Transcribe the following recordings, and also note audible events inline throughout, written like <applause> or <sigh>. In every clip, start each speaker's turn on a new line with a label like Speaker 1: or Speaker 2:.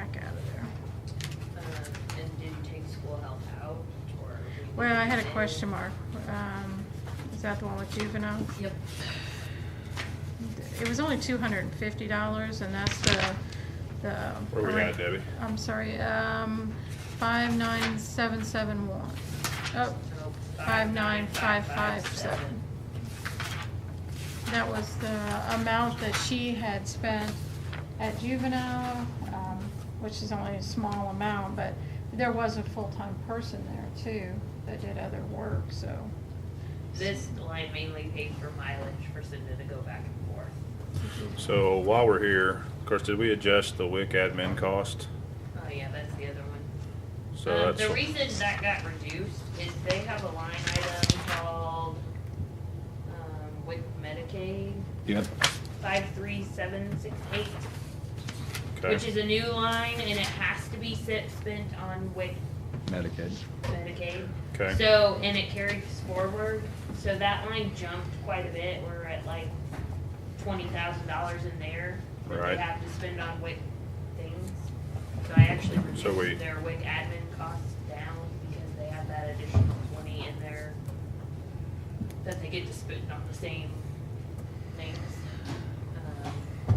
Speaker 1: Um,
Speaker 2: Well, I had a question mark. Um, Is that the one with juvenile?
Speaker 1: Yep.
Speaker 2: It was only two hundred and fifty dollars, and that's the, the.
Speaker 3: Where we at, Debbie?
Speaker 2: I'm sorry, um, five nine seven seven one. Oh, five nine five five seven. That was the amount that she had spent at juvenile, um, which is only a small amount, but there was a full-time person there too that did other work, so.
Speaker 1: This line mainly paid for mileage for Cinda to go back and forth.
Speaker 3: So while we're here, of course, did we adjust the WIC admin cost?
Speaker 1: Oh, yeah, that's the other one.
Speaker 3: So
Speaker 1: Um,
Speaker 3: that's,
Speaker 1: The reason that got reduced is they have a line item called, um, with Medicaid,
Speaker 4: Yep.
Speaker 1: five three seven six eight, which
Speaker 3: okay,
Speaker 1: is a new line and it has to be set, spent on WIC
Speaker 4: Medicaid.
Speaker 1: Medicaid.
Speaker 3: okay.
Speaker 1: So, and it carries forward, so that line jumped quite a bit, we're at like twenty thousand dollars in there that they
Speaker 3: Right.
Speaker 1: have to spend on WIC things. So I actually
Speaker 3: So we-
Speaker 1: reduced their WIC admin costs down because they have that additional twenty in there that they get to spend on the same things. Um,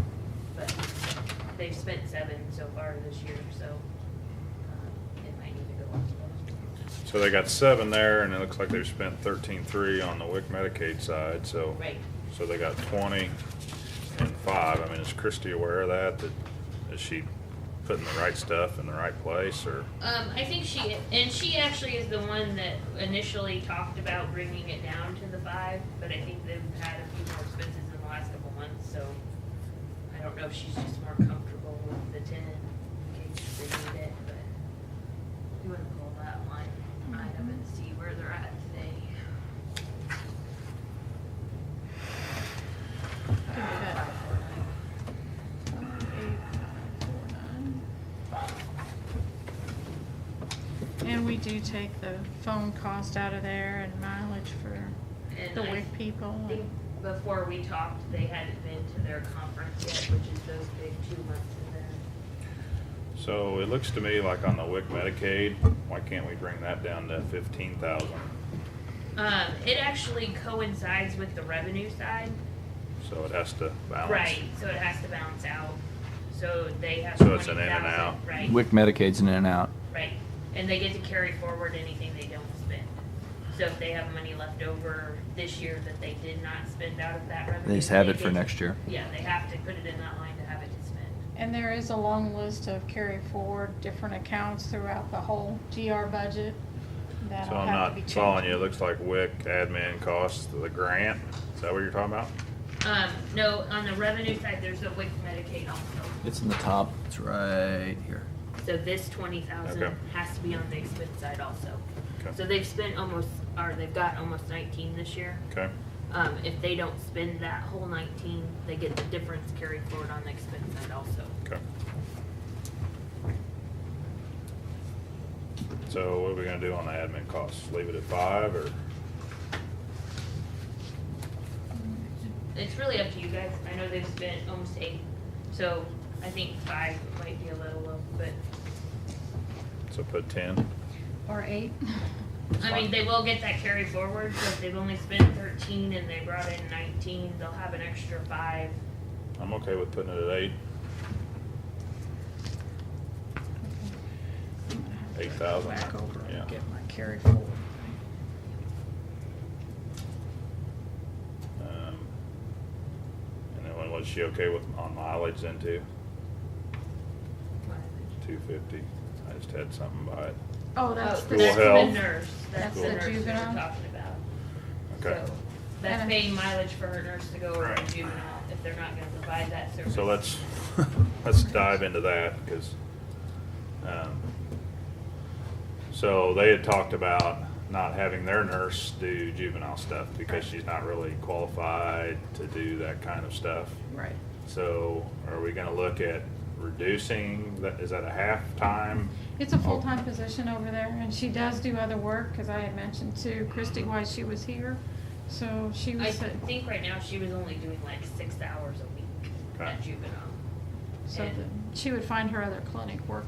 Speaker 1: But they've spent seven so far this year, so um, it might need to go up to those.
Speaker 3: So they got seven there and it looks like they've spent thirteen-three on the WIC Medicaid side, so.
Speaker 1: Right.
Speaker 3: So they got twenty and five. I mean, is Christy aware of that? That, is she putting the right stuff in the right place or?
Speaker 1: Um, I think she and she actually is the one that initially talked about bringing it down to the five, but I think they've had a few more expenses in the last couple months, so I don't know if she's just more comfortable with the ten in case they need it, but you want to call that line item and see where they're at today.
Speaker 2: I think we got- And we do take the phone cost out of there and mileage for
Speaker 1: And
Speaker 2: the
Speaker 1: I
Speaker 2: WIC people.
Speaker 1: I think before we talked, they hadn't been to their conference yet, which is those big two months in there.
Speaker 3: So it looks to me like on the WIC Medicaid, why can't we bring that down to fifteen thousand?
Speaker 1: Um, it actually coincides with the revenue side.
Speaker 3: So it has to balance.
Speaker 1: Right, so it has to balance out. So they have
Speaker 3: So
Speaker 1: twenty
Speaker 3: it's an in and out.
Speaker 1: thousand, right,
Speaker 4: WIC Medicaid's an in and out.
Speaker 1: right. And they get to carry forward anything they don't spend. So if they have money left over this year that they did not spend out of that revenue.
Speaker 4: They just have it
Speaker 1: they
Speaker 4: for
Speaker 1: get-
Speaker 4: next year.
Speaker 1: Yeah, they have to put it in that line to have it to spend.
Speaker 2: And there is a long list of carry forward different accounts throughout the whole GR budget
Speaker 3: So
Speaker 2: that'll
Speaker 3: I'm
Speaker 2: have to
Speaker 3: not
Speaker 2: be changed.
Speaker 3: following you. It looks like WIC admin costs the grant. Is that what you're talking about?
Speaker 1: Um, no, on the revenue side, there's a WIC Medicaid also.
Speaker 4: It's in the top. It's right here. <laughs>
Speaker 1: So this twenty thousand
Speaker 3: Okay.
Speaker 1: has to be on the expense side also.
Speaker 3: Okay.
Speaker 1: So they've spent almost, or they've got almost nineteen this year.
Speaker 3: Okay.
Speaker 1: Um, if they don't spend that whole nineteen, they get the difference carried forward on the expense side also.
Speaker 3: Okay. So what are we gonna do on the admin costs? Leave it at five or?
Speaker 1: It's really up to you guys. I know they've spent almost eight, so I think five might be a little low, but,
Speaker 3: So put ten.
Speaker 2: Or eight.
Speaker 1: I mean, they will get that carry forward, so if they've only spent thirteen and they brought in nineteen, they'll have an extra five.
Speaker 3: I'm okay with putting it at eight, eight thousand.
Speaker 5: back over
Speaker 3: Yeah.
Speaker 5: and get my carry forward.
Speaker 3: Um, And then what- was she okay with on mileage then too? Two fifty. I just had something by it.
Speaker 2: Oh, that's
Speaker 1: Oh,
Speaker 2: the.
Speaker 3: Cool
Speaker 1: That's the
Speaker 3: health.
Speaker 1: nurse, that's the
Speaker 3: Cool.
Speaker 1: nurse that
Speaker 2: Juvenile.
Speaker 1: we're talking about.
Speaker 3: Okay.
Speaker 1: So, That's
Speaker 2: And-
Speaker 1: paying mileage for her nurse to go over to
Speaker 3: Right.
Speaker 1: juvenile if they're not gonna provide that service.
Speaker 3: So let's, let's dive into that, because, um, so they had talked about not having their nurse do juvenile stuff because she's not really qualified to do that kind of stuff.
Speaker 5: Right.
Speaker 3: So are we gonna look at reducing, that, is that a half-time?
Speaker 2: It's a full-time position over there, and she does do other work, because I had mentioned to Christy why she was here. So she
Speaker 1: I
Speaker 2: was, at-
Speaker 1: think right now she was only doing like six hours a week
Speaker 3: Okay.
Speaker 1: at juvenile.
Speaker 2: so
Speaker 1: and-
Speaker 2: that she would find her other clinic work